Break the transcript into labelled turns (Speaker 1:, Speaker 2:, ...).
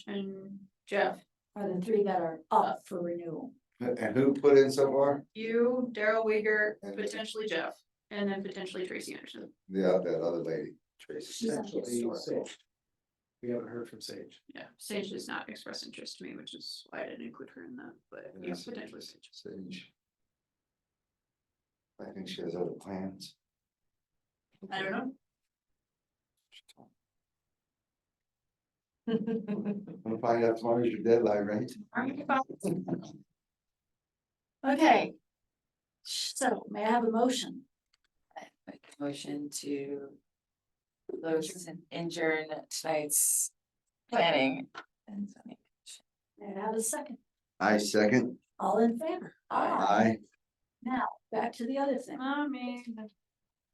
Speaker 1: and Jeff,
Speaker 2: are the three that are up for renewal.
Speaker 3: And who put in so far?
Speaker 1: you, Daryl Weger, potentially Jeff, and then potentially Tracy Anderson.
Speaker 3: Yeah, uh, that other lady.
Speaker 2: She's on historical.
Speaker 4: We haven't heard from Sage.
Speaker 1: Yeah, Sage does not express interest to me, which is why I didn't include her in that, but yeah,
Speaker 3: Yes.
Speaker 1: potentially Sage.
Speaker 3: Sage. I think she has other plans.
Speaker 1: I don't know.
Speaker 3: We'll find out tomorrow's your deadline, right?
Speaker 2: Okay. So may I have a motion?
Speaker 5: Make a motion to close and adjourn tonight's planning and zoning.
Speaker 2: May I have a second?
Speaker 3: I second.
Speaker 2: All in favor?
Speaker 5: Aye.
Speaker 3: I.
Speaker 2: Now, back to the other thing.
Speaker 1: Mommy.